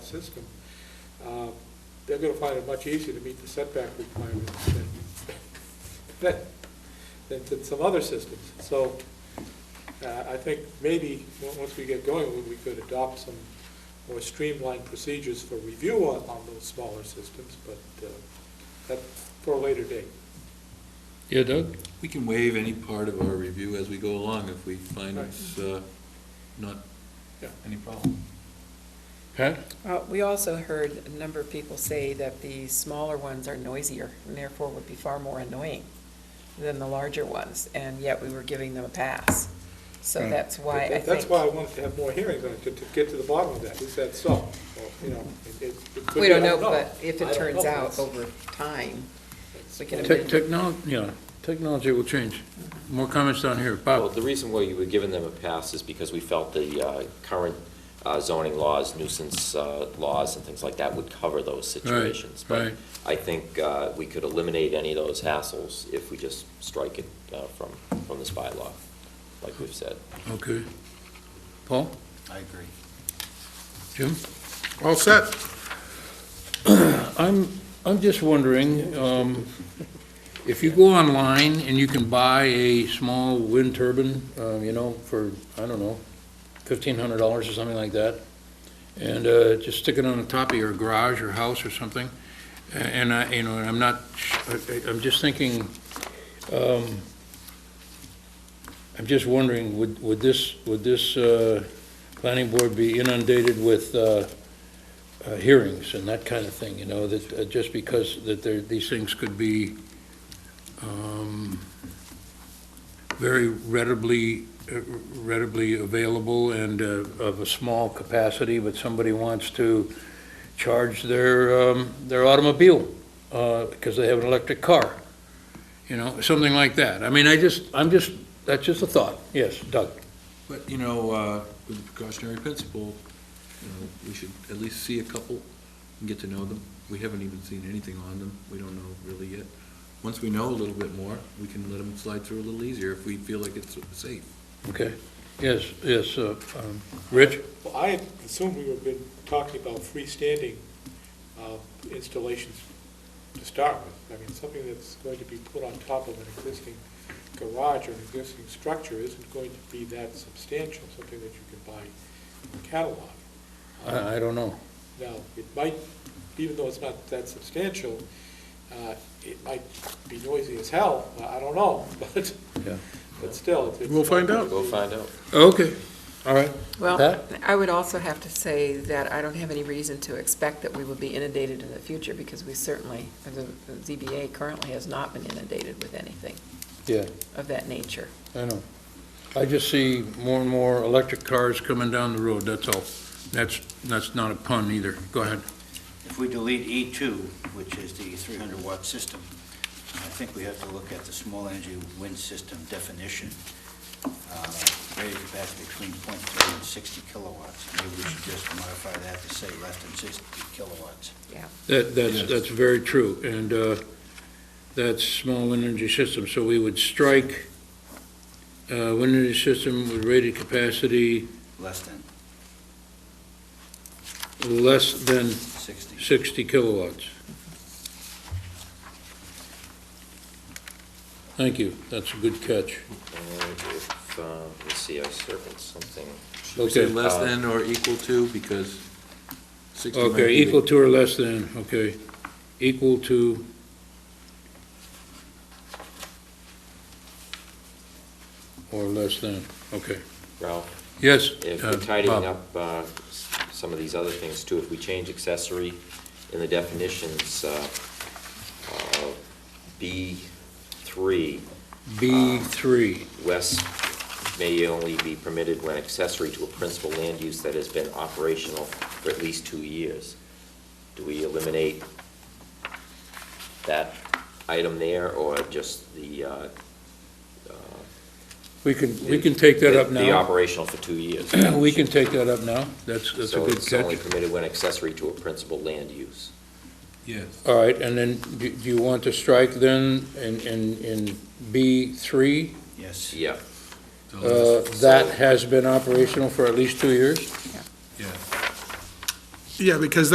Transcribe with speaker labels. Speaker 1: system, uh, they're gonna find it much easier to meet the setback requirements than, than, than- than some other systems. So, uh, I think maybe, on- once we get going, we- we could adopt some more streamlined procedures for review on, on those smaller systems, but, uh, that, for a later date.
Speaker 2: Yeah, Doug?
Speaker 3: We can waive any part of our review as we go along if we find
Speaker 1: Right.
Speaker 3: it's uh, not
Speaker 1: Yeah.
Speaker 3: any problem.
Speaker 2: Pat?
Speaker 4: Uh, We also heard a number of people say that the smaller ones are noisier and therefore would be far more annoying than the larger ones, and yet we were giving them a pass. So
Speaker 2: Right.
Speaker 4: that's why I
Speaker 1: That-
Speaker 4: think.
Speaker 1: That's why I wanted to have more hearings on it, to, to get to the bottom of that, is that so? Well, You know, it- it- it could
Speaker 4: We
Speaker 1: be, I
Speaker 4: don't know, but if
Speaker 1: I
Speaker 4: it
Speaker 1: don't
Speaker 4: turns
Speaker 1: know.
Speaker 4: out over time, we can
Speaker 2: Tech-
Speaker 4: amend.
Speaker 2: Technology, yeah, technology will change. More comments down here.
Speaker 5: Well,
Speaker 2: Bob?
Speaker 5: Oh, the reason why you were giving them a pass is because we felt the uh, current uh, zoning laws, nuisance uh, laws and things like that would cover those situations.
Speaker 2: right.
Speaker 5: But I think uh, we could eliminate any of those hassles if we just strike it uh, from, from this bylaw, like we've said.
Speaker 2: Okay. Paul?
Speaker 6: I agree.
Speaker 2: Jim?
Speaker 7: All set.
Speaker 2: I'm, I'm just wondering, um, if you go online and you can buy a small wind turbine, uh, you know, for, I don't know, fifteen hundred dollars or something like that, and, uh, just stick it on the top of your garage or house or something, a- and I, you know, and I'm not, sh- I- I- I'm just thinking, um, I'm just wondering, would, would this, would this, uh, planning board be inundated with, uh, uh, hearings and that kind of thing, you know, that, uh, just because that there, these things could be um, very readily, uh, readily available and uh, of a small capacity, but somebody wants to charge their, um, their automobile because they have an electric car, you know, something like that. I mean, I just, I'm just, that's just a thought. Yes, Doug?
Speaker 3: But, you know, uh, with the precautionary principle, you know, we should at least see a couple and get to know them. We haven't even seen anything on them. We don't know really yet. Once we know a little bit more, we can let them slide through a little easier if we feel like it's safe.
Speaker 2: Okay. Yes, yes, uh, um, Rich?
Speaker 1: Well, I had assumed we had been talking about freestanding uh, installations to start with. I mean, something that's going to be put on top of an existing garage or an existing structure isn't going to be that substantial, something that you can buy in a catalog.
Speaker 2: I, I don't know.
Speaker 1: Now, it might, even though it's not that substantial, uh, it might be noisy as hell, I I don't know, but,
Speaker 2: Yeah.
Speaker 1: but still. it's- it's-
Speaker 7: We'll find out.
Speaker 5: Go find out.
Speaker 2: Okay, all right.
Speaker 4: Well,
Speaker 2: Pat?
Speaker 4: I would also have to say that I don't have any reason to expect that we will be inundated in the future because we certainly, the the ZBA currently has not been inundated with anything
Speaker 2: Yeah,
Speaker 4: of that nature.
Speaker 2: I know. I just see more and more electric cars coming down the road, that's all. That's, that's not a pun either. Go ahead.
Speaker 6: If we delete E2, which is the 300-watt system, I think we have to look at the small energy wind system definition, uh, rated capacity between .3 and 60 kilowatts. Maybe we should just modify that to say less than 60 kilowatts.
Speaker 2: That, that's,
Speaker 3: Yes.
Speaker 2: that's very true, and uh, that's small wind energy system, so we would strike uh, wind energy system with rated capacity
Speaker 6: Less than
Speaker 2: less than
Speaker 6: 60.
Speaker 2: 60 kilowatts. Thank you, that's a good catch.
Speaker 5: And if, uh, let's see, I circled something.
Speaker 3: We say
Speaker 2: Okay. uh,
Speaker 3: less than or equal to because sixty might
Speaker 2: Okay,
Speaker 3: be the-
Speaker 2: equal to or less than, okay. Equal to... Or less than, okay.
Speaker 5: Ralph?
Speaker 2: Yes,
Speaker 5: If
Speaker 2: uh,
Speaker 5: we're tidying
Speaker 2: Bob.
Speaker 5: up uh, s- some of these other things too, if we change accessory in the definitions, uh, uh, B3, uh,
Speaker 2: B3,
Speaker 5: West may only be permitted when accessory to a principal land use that has been operational for at least two years. Do we eliminate that item there, or just the? uh, uh,
Speaker 2: we can, we can take that up
Speaker 5: the- The
Speaker 2: now.
Speaker 5: operational for two years.
Speaker 2: We can take that up now, that's, that's a
Speaker 5: So
Speaker 2: good
Speaker 5: it's only
Speaker 2: catch.
Speaker 5: permitted when accessory to a principal land use.
Speaker 3: Yes.
Speaker 2: All right, and then, do do you want to strike then in, in, in B3?
Speaker 6: Yes.
Speaker 5: Yeah,
Speaker 3: So
Speaker 2: Uh,
Speaker 3: it's-
Speaker 2: That has been operational for at least two years?
Speaker 3: Yeah.
Speaker 7: Yeah, because